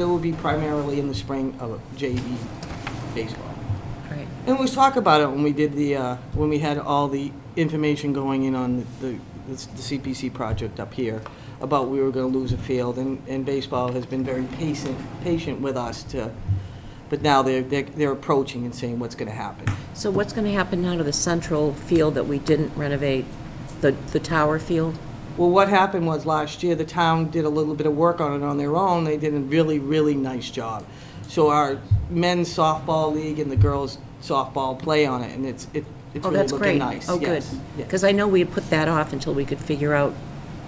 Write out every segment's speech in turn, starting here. It will be primarily in the spring of JV baseball. Great. And we talked about it when we did the, uh, when we had all the information going in on the the CPC project up here, about we were going to lose a field, and and baseball has been very patient, patient with us to, but now they're, they're they're approaching and saying what's going to happen. So what's going to happen now to the central field that we didn't renovate, the, the tower field? Well, what happened was last year, the town did a little bit of work on it on their own. They did a really, really nice job. So our men's softball league and the girls softball play on it, and it's, it- it's Oh, really that's looking great. nice. Oh, good. Yes, yes. Because I know we had put that off until we could figure out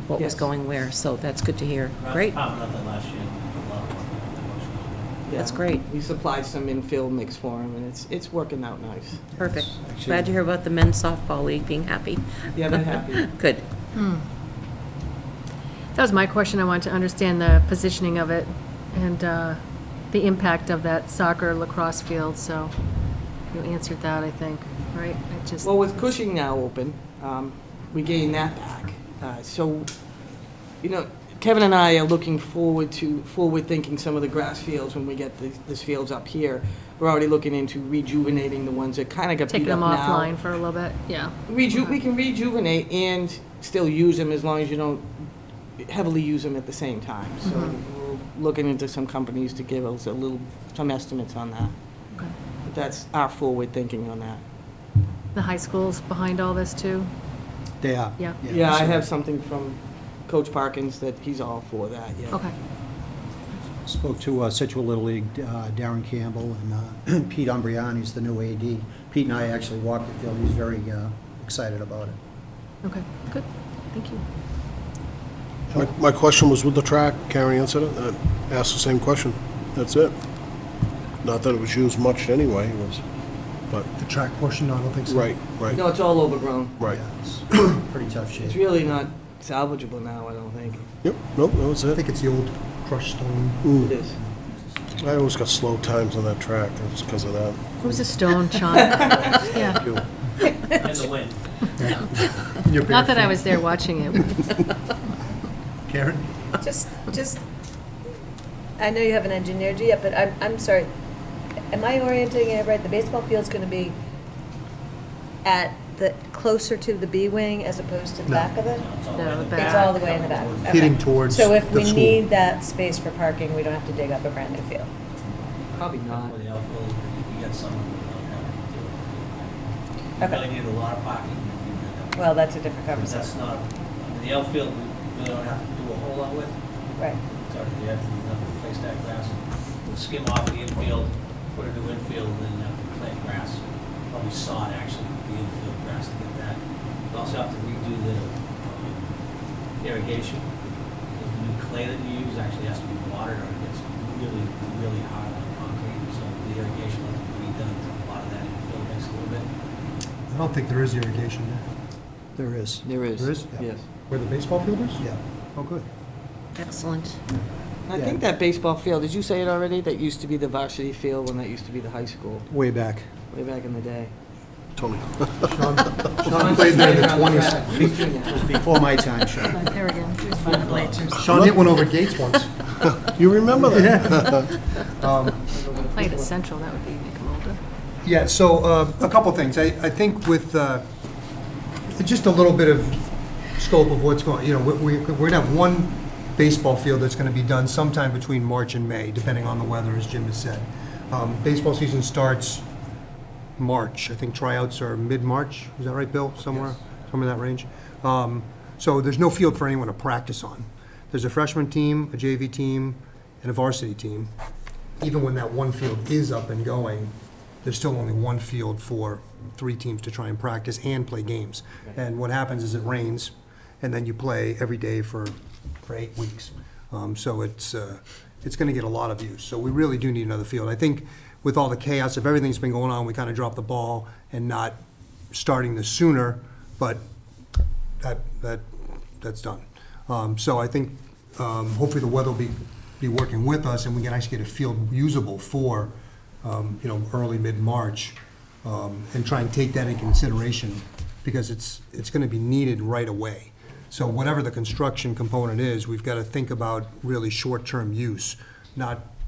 what Yes. was going where, so that's good to hear. Right, Great. Probably not that last year. A lot more. That's Yeah. great. We supplied some infield mix for them, and it's, it's working out nice. Perfect. Actually- Glad to hear about the men's softball league being happy. Yeah, they're happy. Good. That was my question. I wanted to understand the positioning of it and uh, the impact of that soccer lacrosse field, so you answered that, I think, right? I just, Well, with Cushing now open, um, we gain that back. Uh, So, you know, Kevin and I are looking forward to, forward-thinking some of the grass fields when we get these these fields up here. We're already looking into rejuvenating the ones that kind of got taking beat up them now. offline Uh-huh. for a little bit, yeah. Reju, we can rejuvenate and still use them as long as you don't heavily use them at the same time. So Uh-huh. we're looking into some companies to give us a little, some estimates on that. Okay. But That's our forward thinking on that. The high school's behind all this, too? They are. Yeah. Yeah, I so- have something from Coach Parkins that he's all for that, yeah. Okay, Spoke to uh, Situate Little League, uh, Darren Campbell and uh, Pete Umbriani, who's the new AD. Pete and I actually walked the field, he's very uh, excited about it. okay, good, thank you. My my question was with the track carrying incident, I asked the same question. That's it. Not that it was used much anyway, it was, but, The track portion, no, I don't think so. right, No, right, it's all overgrown. right. Yeah, it's Pretty tough It's shape. really not salvageable now, I don't think. Yep, nope, that was I it. think it's the old crushed stone. It is. I always got slow times on that track, that's because of that. It was a stone, Sean. Yeah, In the wind. Your not that I barefoot. was there watching it. Karen? Just, just, I know you haven't engineered it yet, but I'm, I'm sorry. Am I orienting it right? The baseball field's gonna be at the, closer to the B wing as opposed to the No. back of it? No, the It's all the back. way in the back. okay. Hitting towards So if the we school. need that space for parking, we don't have to dig up a brand new field. Probably not. With the outfield, you get someone who don't have to do it. Okay. You really need a lot of parking. if you do that. Well, that's a different Because that's conversation. not, I mean, the outfield, we really don't have to do a whole lot with. Right. It's already there, we don't have to place that grass. We'll Skim off the infield, put it to infield, and then have to plant grass. Probably sod actually, the infield grass to get that. We also have to redo the um, irrigation. The new clay that you use actually has to be watered or it gets really, really hard on concrete. So the irrigation will have to be redone to a lot of that infield mix a little bit. I don't think there is irrigation there. There is. There is. There is? Yes. Where the baseball field is? Yeah. Oh, good. Excellent. I think that baseball field, did you say it already? That used to be the varsity field when that used to be the high school, Way back. way back in the day. Tony. Sean, Oh, Sean played there in the twenties. Before my time, Sean. There we go. Sean hit one over Gates once. You remember that? Um, Played at Central, that would be Nicolota. Yeah, so uh, a couple things. I, I think with, uh, just a little bit of scope of what's going, you know, we, we- we're gonna have one baseball field that's gonna be done sometime between March and May, depending on the weather, as Jim has said. Um, Baseball season starts March. I think tryouts are mid-March. Is that right, Bill? Somewhere, somewhere in that range. Um, So there's no field for anyone to practice on. There's a freshman team, a JV team, and a varsity team. Even when that one field is up and going, there's still only one field for three teams to try and practice and play games. And what happens is it rains, and then you play every day for, for eight weeks. Um, So it's, uh, it's going to get a lot of use. So we really do need another field. I think with all the chaos of everything that's been going on, we kind of dropped the ball and not starting this sooner, but that, that, that's done. Um, So I think um, hopefully the weather will be, be working with us and we can actually get a field usable for, um, you know, early, mid-March. um, And try and take that in consideration because it's, it's going to be needed right away. So whatever the construction component is, we've got to think about really short-term use, not